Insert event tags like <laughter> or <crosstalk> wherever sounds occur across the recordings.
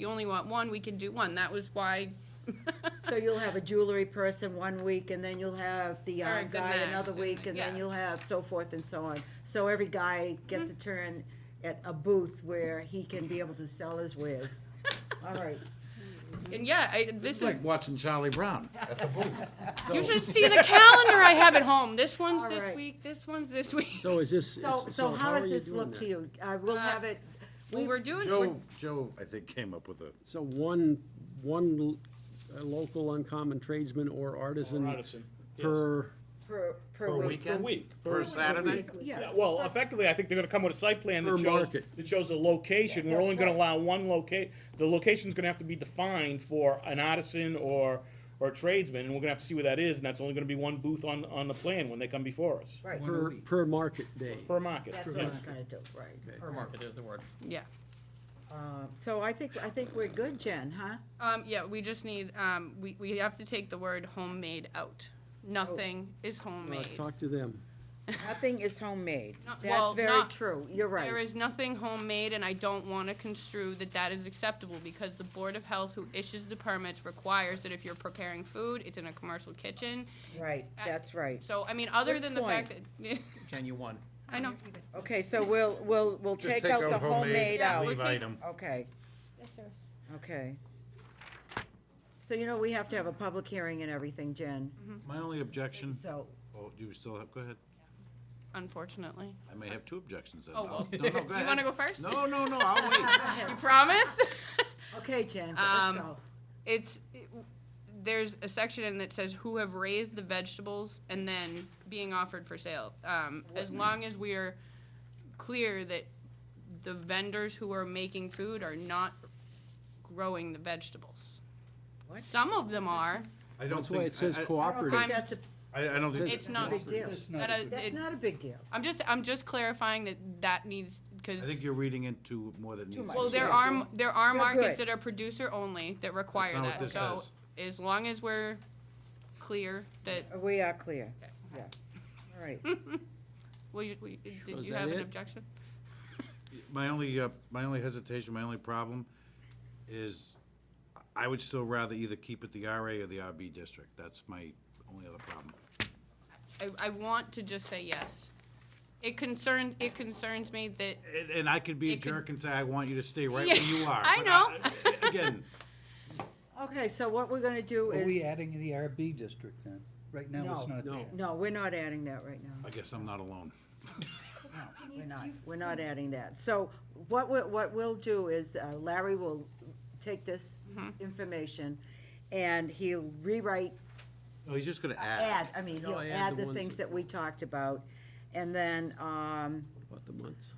you only want one, we can do one. That was why, So you'll have a jewelry person one week, and then you'll have the Or a yarn good guy max, another and- week, and then yeah. Mm-hmm. you'll have so forth and so on. So every guy gets a turn at a booth where he can be able to sell <laughs> his wares. All right, and yeah, I, This this is is, like watching <laughs> Charlie Brown at the booth. you should see the calendar I have at home. This one's All this right. week, this one's this week. So is this, is- so, so how are does you this doing look that? to you? I will Uh, have it, Well, we're doing, we're- Joe, Joe, I think, came up with a, So one, one l- uh, local uncommon tradesman or artisan. Or artisan, yes. Per, per, per Per week. weekend? week. Per Saturday? Yeah. Yeah, well, effectively, I think they're gonna come with a site plan Per that shows, market. that shows the location, we're That's only gonna right. allow one loca, the location's gonna have to be defined for an artisan or, or tradesman, and we're gonna have to see where that is, and that's only gonna be one booth on, on the plan when they come before us, Right, per, per market day. per market. that's what I yeah. was gonna do, right. Per market is the word. yeah. Uh, So I think, I think we're good, Jen, huh? Um, yeah, we just need, um, we, we have to take the word homemade out. Nothing is Uh, homemade. Talk to them. Nothing is homemade. No- That's well, very not- true, you're right. There is nothing homemade, and I don't want to construe that that is acceptable, because the Board of Health who issues the permits requires that if you're preparing food, it's in a commercial kitchen. Right, I- that's right. So, I mean, other Good than the fact point. that, <laughs> Ken, you won. I know, Okay, so we'll, we'll, we'll just take out the homemade Yeah, out. we'll leave take- item. Okay. Okay. So you know, we have to have a public hearing and everything, Jen, Mm-hmm. My only objection, so, oh, you still have, go ahead. unfortunately. I may have two objections then. Oh, No, well. <laughs> no, no, go Do you wanna ahead. go first? No, no, no, I'll <laughs> wait. You <laughs> promise? okay, Jen, Um, let's go. It's, there's a section in that says who have raised the vegetables and then being offered for sale. Um, as long as we are clear that the vendors who are making food are not growing the vegetables. What? Some of them are. I don't That's why think- it says I- I- I don't cooperative. think I'm- that's a, I, I don't think. It's not- big deal. That, uh, that's it- not a big deal. I'm just, I'm just clarifying that that needs, because, I think you're reading into more than needs. much. well, there Yeah. are, m- there are You're markets good. that are producer only that require not what that. this So says. as long as we're clear that, We are clear, Okay. yeah, all <laughs> right. well, you, we- did is you that have an it? objection? My only, uh, my only hesitation, my only problem is I would still rather either keep it the RA or the RB district. That's my only other problem. I, I want to just say yes. It concerns, it concerns me that, And, and I could be a It could- jerk and say, I want you to stay right Yeah, where you are. I but Again, Okay, so what we're gonna do Are we is, adding the RB district then? Right now, No. it's not there. No. no, we're not adding that right now. I guess I'm not alone. We're not, we're not adding that. So what we, what we'll do is uh, Larry will take this Mm-hmm. information and he'll rewrite, No, Oh, he's just gonna add, add. I mean, No, he'll add add the the ones things that- that we talked about. And then, um, About the months.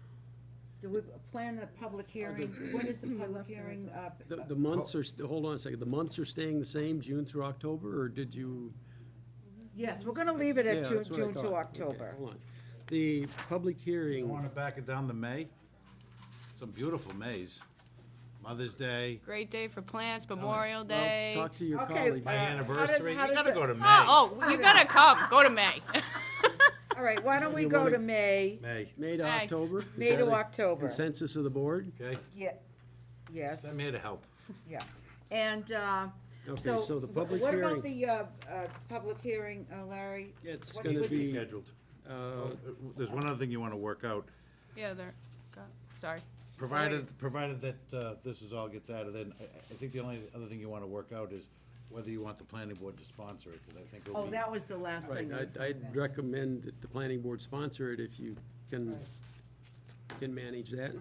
do we plan the public hearing? When is the Mm-hmm. public hearing? uh, The, the months are, st- hold on a second, the months are staying the same, June through October, or did you? Yes, we're gonna leave it at Yeah, June, that's what I June thought. to Okay, October. Hold on. The public You hearing, wanna back it down to May? Some beautiful Mays. Mother's Day, great day for plants, Memorial well, Day. talk to your Okay, colleagues. my Uh, how does- anniversary. You how does gotta the- go to May. Oh, oh, you gotta come, go to May. <laughs> All right, why don't we You go wanna- to May, May, May to Hey. October? Is May that to a October? Consensus of the board? okay? Yeah, yes. I'm here to help. Yeah, and, uh, Okay, so. so the wh- public What about hearing- the, uh, uh, public hearing, uh, Larry? It's What gonna would- be- Scheduled. Uh, Uh, There's one other thing you wanna work out. Yeah, there, God, sorry. Provided, provided that uh, this is all gets added in, I- I think the only other thing you want to work out is whether you want the planning board to sponsor it, because I think it'll Oh, be. that was the last Right, thing. I was I'd, gonna I'd mention. recommend that the planning board sponsor it if you can, can <laughs> manage that.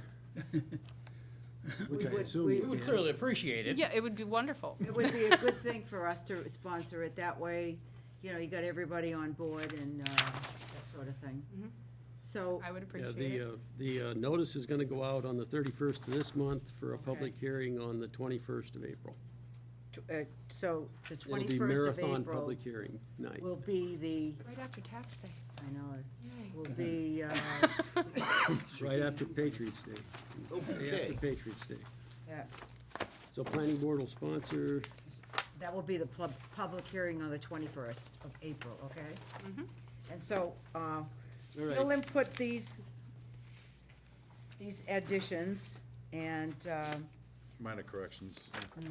Which I We would- assume we- you We would can. clearly appreciate it. Yeah, it would be wonderful. It would be a good thing for us to sponsor it, that way, you know, you got everybody on board and, uh, that sort of thing. So, Mm-hmm. I would Yeah, appreciate the, it. uh, the uh, notice is gonna go out on the thirty-first of this month for a public hearing on the twenty-first of April. tw- uh, so the It'll be twenty-first of marathon April public hearing night. will be the, Right after tax day. I know, it will be, uh, Right after Patriots Day. Day after Okay. Patriots Day. that- So planning board will sponsor, That will be the pub, public hearing on the twenty-first of April, okay? Mm-hmm. And so, uh, you'll right. input these, these additions, and, um, minor corrections. yeah.